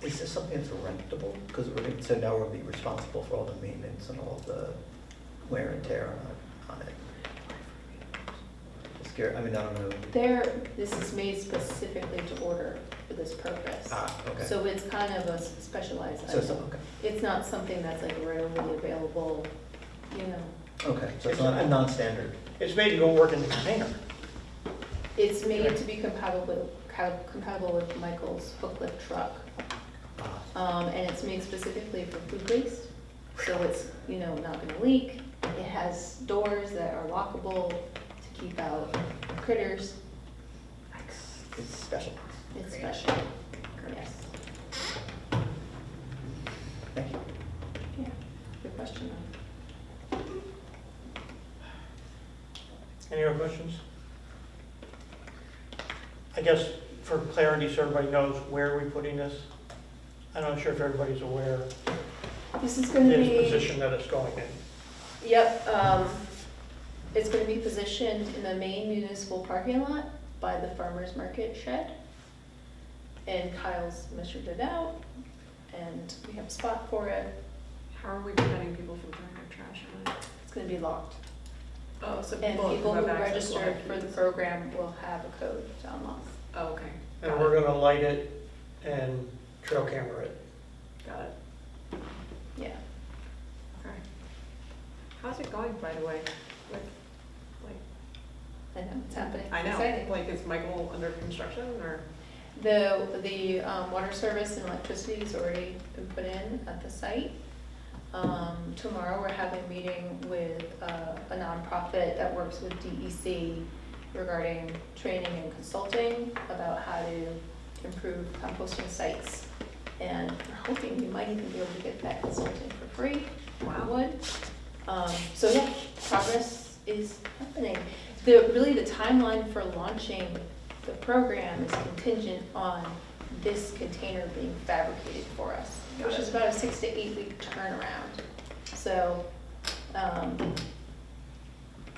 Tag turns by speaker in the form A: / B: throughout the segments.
A: this something that's rentable? Because we're, gonna- so now we'll be responsible for all the maintenance and all the wear and tear on, on it. It's scary, I mean, I don't know.
B: There, this is made specifically to order for this purpose.
A: Ah, okay.
B: So it's kind of a s- specialized
A: So, it's-
B: item.
A: okay,
B: It's not something that's like readily available, you know.
A: okay, so it's not a non-standard.
C: It's made to go work in the container.
B: It's made to be compatible with, co- compatible with Michael's hook lift truck.
A: Ah,
B: Um, and it's made specifically for food waste, so it's, you know, not gonna leak. It has doors that are lockable to keep out critters.
C: It's special.
B: It's
D: Great.
B: special, yes.
A: Thank you.
B: Yeah, good question. though.
C: Any other questions? I guess for clarity, so everybody knows where we're putting this. I'm not sure if everybody's aware
B: This is
C: of
B: gonna
C: the
B: be,
C: position that it's going in.
B: yep, um, it's gonna be positioned in the main municipal parking lot by the farmer's market shed. And Kyle's measured it out, and we have a spot for it.
D: How are we preventing people from throwing their trash in it?
B: It's gonna be locked.
D: Oh, so
B: And people who
D: have access
B: register
D: to lock
B: for the
D: keys.
B: program will have a code to unlock.
D: Oh, okay.
C: And
D: Got
C: we're
D: it.
C: gonna light it and trail camera it.
D: Got it.
B: Yeah.
D: Okay. How's it going, by the way? Like, like,
B: I know, it's happening.
D: I know,
B: Exciting.
D: like, is Michael under construction or?
B: The, the um, water service and electricity has already been put in at the site. Um, Tomorrow, we're having a meeting with uh, a nonprofit that works with DEC regarding training and consulting about how to improve composting sites. And we're hoping we might even be able to get that consulting for free. I would. Um, so yeah, progress is happening. The, really the timeline for launching the program is contingent on this container being fabricated for us,
D: Got
B: which
D: it.
B: is about a six to eight week turnaround. So, um,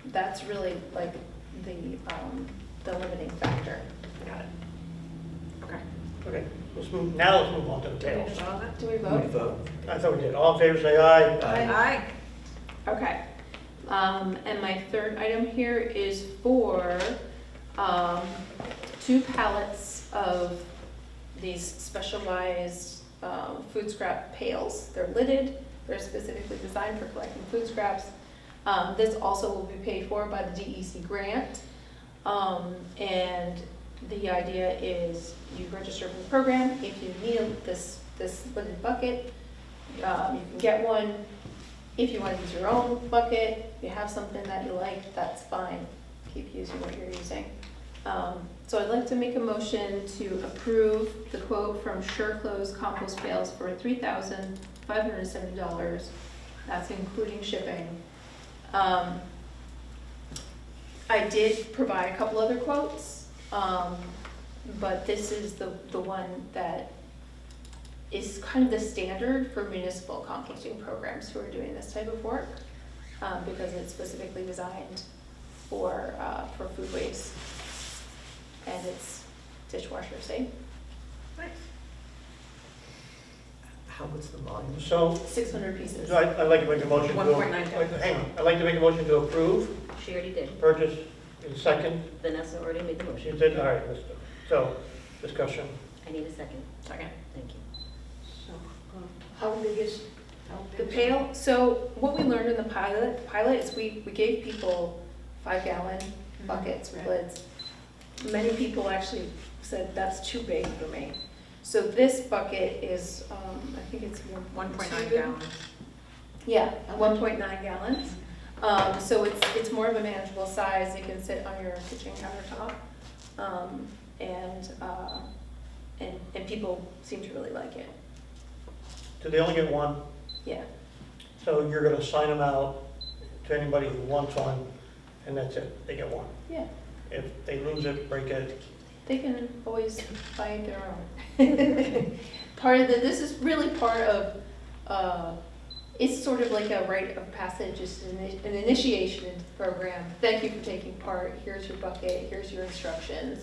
B: that's really like the, um, the limiting factor.
D: Got it. Okay.
C: Okay, let's move, now let's move on to the
D: Did we
C: tails.
D: just vote on that?
B: Do we
A: We
B: vote?
A: vote.
C: I thought we did. All in favor, say aye.
A: Aye.
D: Aye.
B: Okay. Um, and my third item here is for, um, two pallets of these specialized, um, food scrap pails. They're lidded, they're specifically designed for collecting food scraps. Um, this also will be paid for by the DEC grant. Um, and the idea is you register for the program, if you need this, this lidded bucket, um, you can get one, if you want to use your own bucket, you have something that you like, that's fine. Keep using what you're using. Um, So I'd like to make a motion to approve the quote from Sureclose Compost Bales for three thousand five hundred and seventy dollars. That's including shipping. Um, I did provide a couple other quotes, um, but this is the, the one that is kind of the standard for municipal composting programs who are doing this type of work, um, because it's specifically designed for, uh, for food waste. And it's dishwasher safe,
D: Nice.
A: How, what's the volume?
C: So,
B: six hundred pieces.
C: so I- I'd like to make a motion to.
D: 1.9.
C: Hang on, I'd like to make a motion to approve
E: She already did.
C: purchase in second.
E: Vanessa already made the
C: She
E: motion.
C: did, all right, let's- so, discussion.
E: I need a second.
D: Second.
E: Thank you.
B: How big is The pail, so what we learned in the pilot, pilot is we, we gave people five gallon buckets with
D: Mm-hmm. Right.
B: lids. Many people actually said, that's too big for me. So this bucket is, um, I think it's one.
D: One point nine
B: two-
D: gallons.
B: Yeah, one point nine gallons. Um, so it's, it's more of a manageable size, it can sit on your kitchen countertop. Um, and, uh, and, and people seem to really like it,
C: Do they only get one?
B: yeah.
C: So you're gonna sign them out to anybody who wants one, and that's it, they get one.
B: Yeah.
C: If they lose it, break it,
B: They can always find their own. Part of the, this is really part of, uh, it's sort of like a rite of passage, it's an an initiation into the program. Thank you for taking part, here's your bucket, here's your instructions.